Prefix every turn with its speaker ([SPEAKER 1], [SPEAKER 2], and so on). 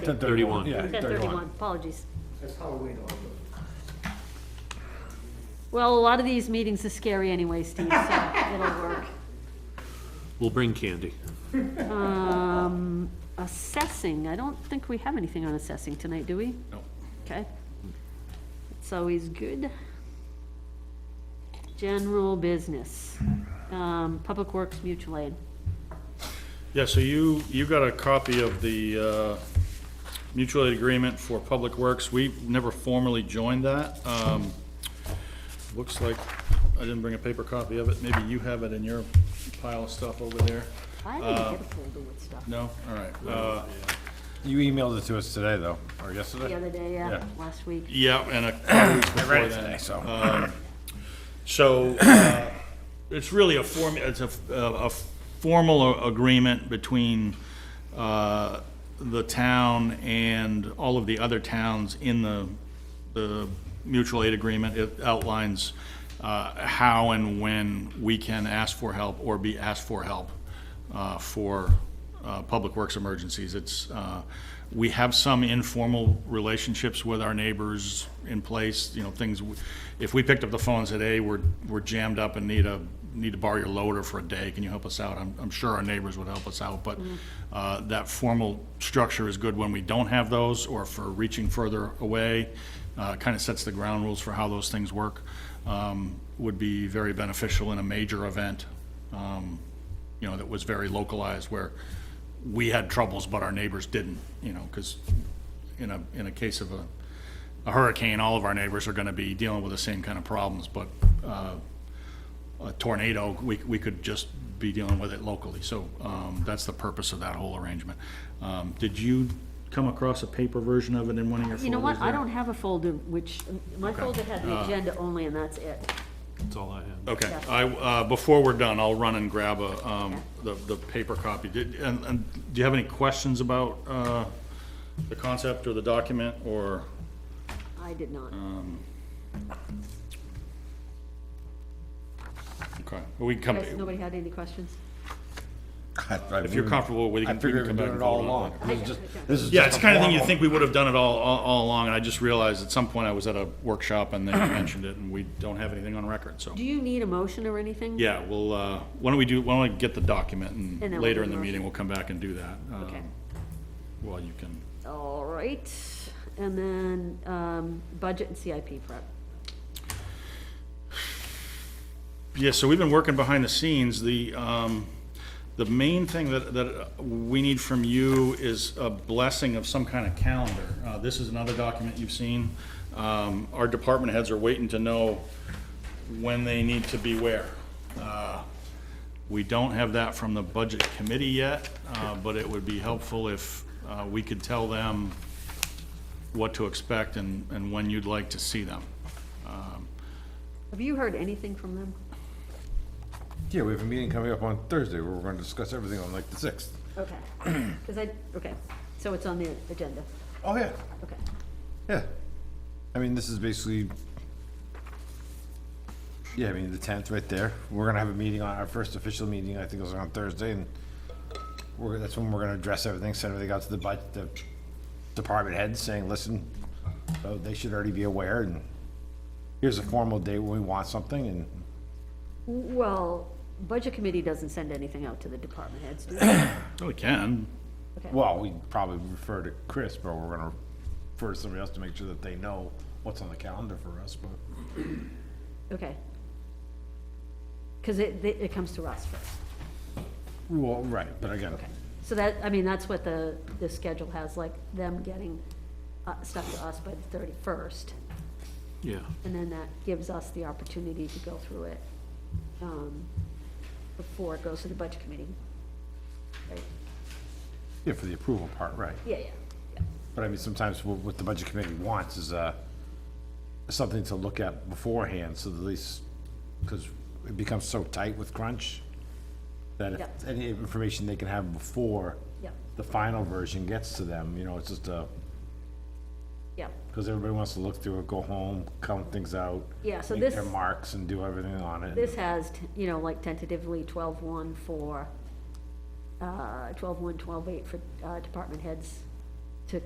[SPEAKER 1] 10:31.
[SPEAKER 2] Yeah,
[SPEAKER 1] Yeah.
[SPEAKER 2] ten thirty-one, apologies.
[SPEAKER 3] That's Halloween also.
[SPEAKER 2] Well, a lot of these meetings are scary anyway, Steve, so it'll work.
[SPEAKER 1] We'll bring candy.
[SPEAKER 2] Um, assessing, I don't think we have anything on assessing tonight, do we?
[SPEAKER 1] No.
[SPEAKER 2] Okay. It's always good. General business, um, Public Works Mutual Aid.
[SPEAKER 4] Yeah, so you, you got a copy of the uh, mutual aid agreement for Public Works. We never formally joined that. Um, Looks like, I didn't bring a paper copy of it. Maybe you have it in your pile of stuff over there.
[SPEAKER 2] I didn't get a folder with stuff
[SPEAKER 4] No? All right. Uh,
[SPEAKER 5] You emailed it to us today, though, or yesterday?
[SPEAKER 2] the other day, yeah,
[SPEAKER 5] Yeah.
[SPEAKER 2] last week.
[SPEAKER 4] Yeah, and a couple weeks
[SPEAKER 5] I read
[SPEAKER 4] before
[SPEAKER 5] it today,
[SPEAKER 4] that.
[SPEAKER 5] so.
[SPEAKER 4] So, uh, it's really a form, it's a, a a formal a- agreement between, uh, the town and all of the other towns in the, the mutual aid agreement. It outlines, uh, how and when we can ask for help or be asked for help, uh, for, uh, public works emergencies. It's, uh, we have some informal relationships with our neighbors in place, you know, things, w- if we picked up the phone and said, hey, we're, we're jammed up and need a, need to borrow your loader for a day, can you help us out? I'm, I'm sure our neighbors would help us out, but uh, that formal structure is good when we don't have those or for reaching further away. Kind of sets the ground rules for how those things work. Um, Would be very beneficial in a major event. um, you know, that was very localized where we had troubles, but our neighbors didn't, you know, because in a, in a case of a, a hurricane, all of our neighbors are gonna be dealing with the same kind of problems, but, uh, a tornado, we, we could just be dealing with it locally, so, um, that's the purpose of that whole arrangement. Um, did you come across a paper version of it in one of your folders
[SPEAKER 2] You know what, I
[SPEAKER 4] there?
[SPEAKER 2] don't have a folder, which, my folder had the agenda only, and that's it.
[SPEAKER 1] That's all I have.
[SPEAKER 4] Okay,
[SPEAKER 2] Yeah.
[SPEAKER 4] I, uh, before we're done, I'll run and grab a, um, the, the paper copy. Did, and, and do you have any questions about, uh, the concept or the document, or?
[SPEAKER 2] I did not.
[SPEAKER 4] Okay, we can come,
[SPEAKER 2] Guys, nobody had any questions?
[SPEAKER 4] if you're comfortable with it,
[SPEAKER 5] I
[SPEAKER 4] we can
[SPEAKER 5] figured we
[SPEAKER 4] come
[SPEAKER 5] were
[SPEAKER 4] back
[SPEAKER 5] doing
[SPEAKER 4] and
[SPEAKER 5] it
[SPEAKER 4] vote
[SPEAKER 5] all along.
[SPEAKER 4] on it later.
[SPEAKER 5] This is just- this is
[SPEAKER 4] Yeah,
[SPEAKER 5] just
[SPEAKER 4] it's
[SPEAKER 5] a
[SPEAKER 4] the kind of thing you
[SPEAKER 5] formal-
[SPEAKER 4] think we would have done it all, all, all along, and I just realized at some point I was at a workshop and they mentioned it, and we don't have anything on record, so.
[SPEAKER 2] Do you need a motion or anything?
[SPEAKER 4] Yeah, well, uh, why don't we do, why don't we get the document,
[SPEAKER 2] then we'll
[SPEAKER 4] and later
[SPEAKER 2] do
[SPEAKER 4] in the
[SPEAKER 2] the motion.
[SPEAKER 4] meeting, we'll come back and do that.
[SPEAKER 2] Okay.
[SPEAKER 4] um, While you can,
[SPEAKER 2] All right, and then, um, budget and CIP prep.
[SPEAKER 4] yeah, so we've been working behind the scenes, the, um, the main thing that, that we need from you is a blessing of some kind of calendar. Uh, this is another document you've seen, um, our department heads are waiting to know when they need to be where. Uh, We don't have that from the budget committee yet, uh, but it would be helpful if, uh, we could tell them what to expect and, and when you'd like to see them. Um,
[SPEAKER 2] Have you heard anything from them?
[SPEAKER 5] Yeah, we have a meeting coming up on Thursday, where we're gonna discuss everything on like the sixth.
[SPEAKER 2] Okay, because I, okay, so it's on the agenda,
[SPEAKER 5] Oh, yeah,
[SPEAKER 2] okay.
[SPEAKER 5] yeah. I mean, this is basically, yeah, I mean, the tenth right there. We're gonna have a meeting on, our first official meeting, I think it was on Thursday, and we're, that's when we're gonna address everything, send everything out to the budget, the department heads, saying, listen, so they should already be aware, and here's a formal date when we want something, and
[SPEAKER 2] Well, budget committee doesn't send anything out to the department heads, do they?
[SPEAKER 4] Oh, we can.
[SPEAKER 2] Okay,
[SPEAKER 5] Well, we probably refer to Chris, but we're gonna refer to somebody else to make sure that they know what's on the calendar for us, but.
[SPEAKER 2] okay. Because it, they- it comes to us first.
[SPEAKER 5] Well, right, but again,
[SPEAKER 2] So that, I mean, that's what the, the schedule has, like them getting uh, stuff to us by the thirty-first.
[SPEAKER 1] Yeah,
[SPEAKER 2] And then that gives us the opportunity to go through it, um, before it goes to the budget committee. Right?
[SPEAKER 5] yeah, for the approval part, right.
[SPEAKER 2] Yeah, yeah, yeah.
[SPEAKER 5] But I mean, sometimes wha- what the budget committee wants is, uh, something to look at beforehand, so that at least, because it becomes so tight with crunch, that if
[SPEAKER 2] Yeah.
[SPEAKER 5] any information they can have before
[SPEAKER 2] Yeah.
[SPEAKER 5] the final version gets to them, you know, it's just a,
[SPEAKER 2] Yeah,
[SPEAKER 5] because everybody wants to look through it, go home, count things out.
[SPEAKER 2] Yeah, so
[SPEAKER 5] make their
[SPEAKER 2] this-
[SPEAKER 5] marks and do everything on it.
[SPEAKER 2] this has, t- you know, like tentatively twelve-one for, uh, twelve-one, twelve-eight for, uh, department heads